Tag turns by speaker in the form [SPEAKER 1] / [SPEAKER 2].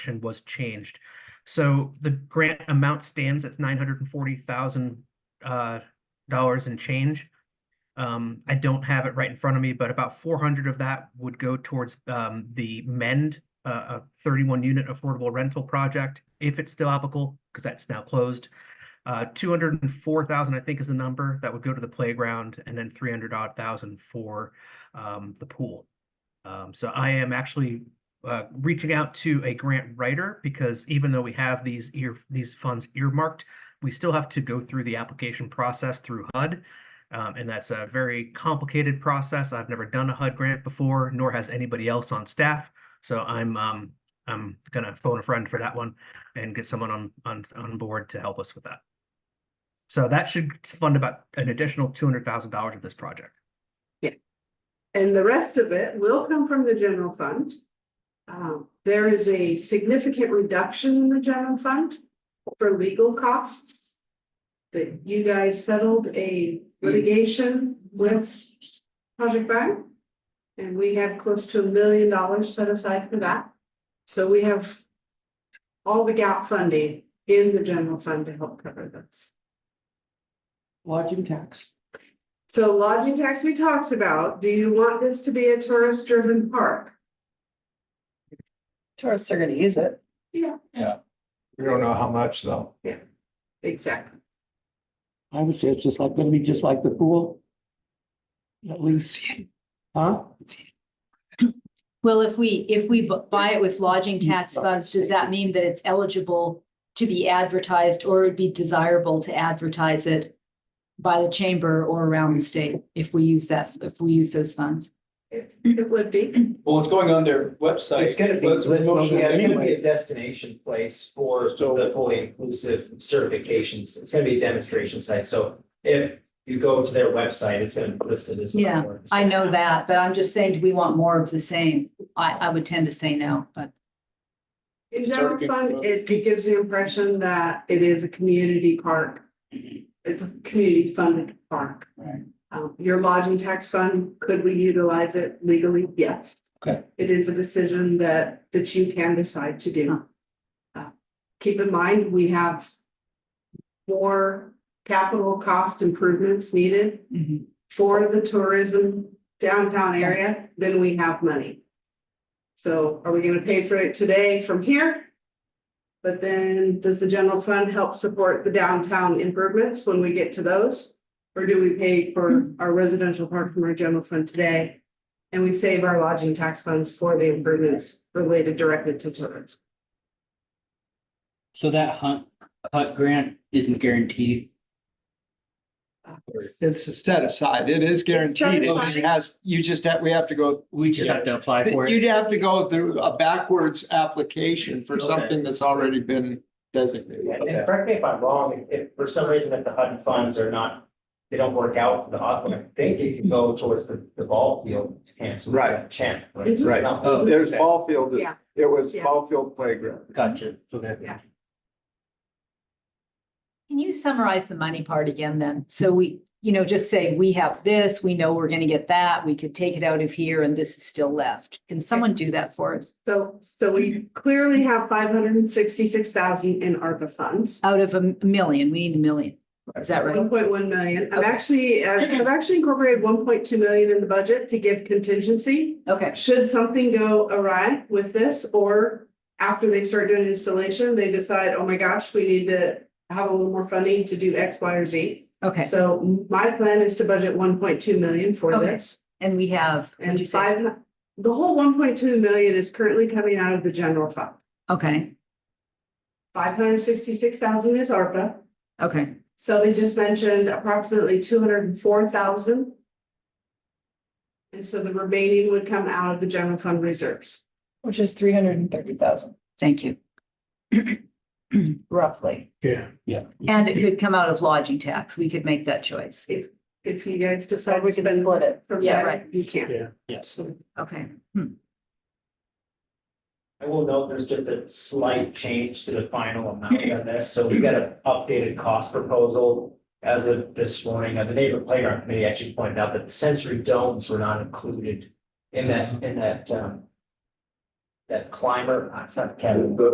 [SPEAKER 1] section was changed. So the grant amount stands at nine hundred and forty thousand uh, dollars and change. Um, I don't have it right in front of me, but about four hundred of that would go towards um, the mend uh, a thirty-one unit affordable rental project, if it's still applicable, because that's now closed. Uh, two hundred and four thousand, I think, is the number that would go to the playground, and then three hundred odd thousand for um, the pool. Um, so I am actually uh, reaching out to a grant writer because even though we have these ear these funds earmarked, we still have to go through the application process through HUD. Um, and that's a very complicated process. I've never done a HUD grant before, nor has anybody else on staff. So I'm um, I'm gonna phone a friend for that one and get someone on on on board to help us with that. So that should fund about an additional two hundred thousand dollars of this project.
[SPEAKER 2] And the rest of it will come from the general fund. Um, there is a significant reduction in the general fund for legal costs. That you guys settled a litigation with Project Brian. And we had close to a million dollars set aside for that. So we have all the gap funding in the general fund to help cover this.
[SPEAKER 3] Lodging tax.
[SPEAKER 2] So lodging tax we talked about, do you want this to be a tourist driven park?
[SPEAKER 3] Tourists are gonna use it.
[SPEAKER 2] Yeah.
[SPEAKER 4] We don't know how much though.
[SPEAKER 2] Exactly.
[SPEAKER 3] I would say it's just like, gonna be just like the pool. At least, huh?
[SPEAKER 5] Well, if we, if we bu- buy it with lodging tax funds, does that mean that it's eligible to be advertised or it'd be desirable to advertise it by the chamber or around the state if we use that, if we use those funds?
[SPEAKER 2] It it would be,
[SPEAKER 6] Well, it's going on their website.
[SPEAKER 7] It's gonna be,
[SPEAKER 6] Let's
[SPEAKER 7] listed-
[SPEAKER 6] motion
[SPEAKER 7] yeah, it's gonna be
[SPEAKER 6] anyway.
[SPEAKER 7] a destination place for
[SPEAKER 6] So-
[SPEAKER 7] the fully inclusive certifications. It's gonna be a demonstration site, so if you go to their website, it's gonna be listed as. an
[SPEAKER 5] Yeah,
[SPEAKER 7] award.
[SPEAKER 5] I know that, but I'm just saying, do we want more of the same? I, I would tend to say no, but
[SPEAKER 2] in
[SPEAKER 6] Sorry,
[SPEAKER 2] general
[SPEAKER 6] good
[SPEAKER 2] fund,
[SPEAKER 6] luck.
[SPEAKER 2] it it gives the impression that it is a community park. It's a community funded park.
[SPEAKER 3] Mm-hmm. Right.
[SPEAKER 2] Um, your lodging tax fund, could we utilize it legally? Yes.
[SPEAKER 3] Okay.
[SPEAKER 2] It is a decision that that you can decide to do. Uh, Keep in mind, we have more capital cost improvements needed
[SPEAKER 5] mhm.
[SPEAKER 2] for the tourism downtown area, then we have money. So are we gonna pay for it today from here? But then does the general fund help support the downtown improvements when we get to those? Or do we pay for our residential park from our general fund today? And we save our lodging tax funds for the improvements related directly to tourism.
[SPEAKER 8] So that hunt, hut grant isn't guaranteed.
[SPEAKER 4] It's set aside. It is guaranteed. It
[SPEAKER 2] It's set aside.
[SPEAKER 4] has, you just have, we have to go,
[SPEAKER 8] We just have to apply for it.
[SPEAKER 4] you'd have to go through a backwards application for
[SPEAKER 8] Okay.
[SPEAKER 4] something that's already been designated.
[SPEAKER 7] Yeah, And correct me if I'm wrong, if- if for some reason if the HUD funds are not, they don't work out for the hospital, I think it can go towards the, the ball field enhancement.
[SPEAKER 4] Right.
[SPEAKER 7] Champ.
[SPEAKER 4] Right. Uh,
[SPEAKER 8] Oh,
[SPEAKER 4] There's
[SPEAKER 8] okay.
[SPEAKER 4] ball field.
[SPEAKER 2] Yeah.
[SPEAKER 4] It was
[SPEAKER 2] Yeah.
[SPEAKER 4] ball field playground.
[SPEAKER 8] Gotcha. Okay.
[SPEAKER 5] can you summarize the money part again then? So we, you know, just say, we have this, we know we're gonna get that, we could take it out of here and this is still left. Can someone do that for us?
[SPEAKER 2] So, so we clearly have five hundred and sixty-six thousand in ARPA funds.
[SPEAKER 5] Out of a m- million, we need a million. Is that right?
[SPEAKER 2] One point one million. I've
[SPEAKER 5] Okay.
[SPEAKER 2] actually, I've I've actually incorporated one point two million in the budget to give contingency.
[SPEAKER 5] Okay,
[SPEAKER 2] Should something go awry with this, or after they start doing installation, they decide, oh my gosh, we need to have a little more funding to do X, Y, or Z.
[SPEAKER 5] okay.
[SPEAKER 2] So my plan is to budget one point two million for
[SPEAKER 5] Okay.
[SPEAKER 2] this.
[SPEAKER 5] And we have, would you
[SPEAKER 2] And
[SPEAKER 5] say?
[SPEAKER 2] five, the whole one point two million is currently coming out of the general fund.
[SPEAKER 5] Okay,
[SPEAKER 2] Five hundred sixty-six thousand is ARPA.
[SPEAKER 5] okay,
[SPEAKER 2] So they just mentioned approximately two hundred and four thousand. And so the remaining would come out of the general fund reserves.
[SPEAKER 3] Which is three hundred and thirty thousand
[SPEAKER 5] thank you.
[SPEAKER 3] roughly.
[SPEAKER 4] Yeah.
[SPEAKER 5] And it could come out of lodging tax. We could make that choice.
[SPEAKER 2] If you guys decide to
[SPEAKER 3] We can
[SPEAKER 2] spend
[SPEAKER 3] split it.
[SPEAKER 2] from
[SPEAKER 5] Yeah,
[SPEAKER 2] that,
[SPEAKER 5] right.
[SPEAKER 2] you can.
[SPEAKER 8] Yes.
[SPEAKER 5] Okay.
[SPEAKER 7] I will note there's just a slight change to the final amount on this, so we got an updated cost proposal. As of this morning, uh, the neighborhood playground committee actually pointed out that the sensory domes were not included in that, in that, um. That climber, uh, it's not Kevin,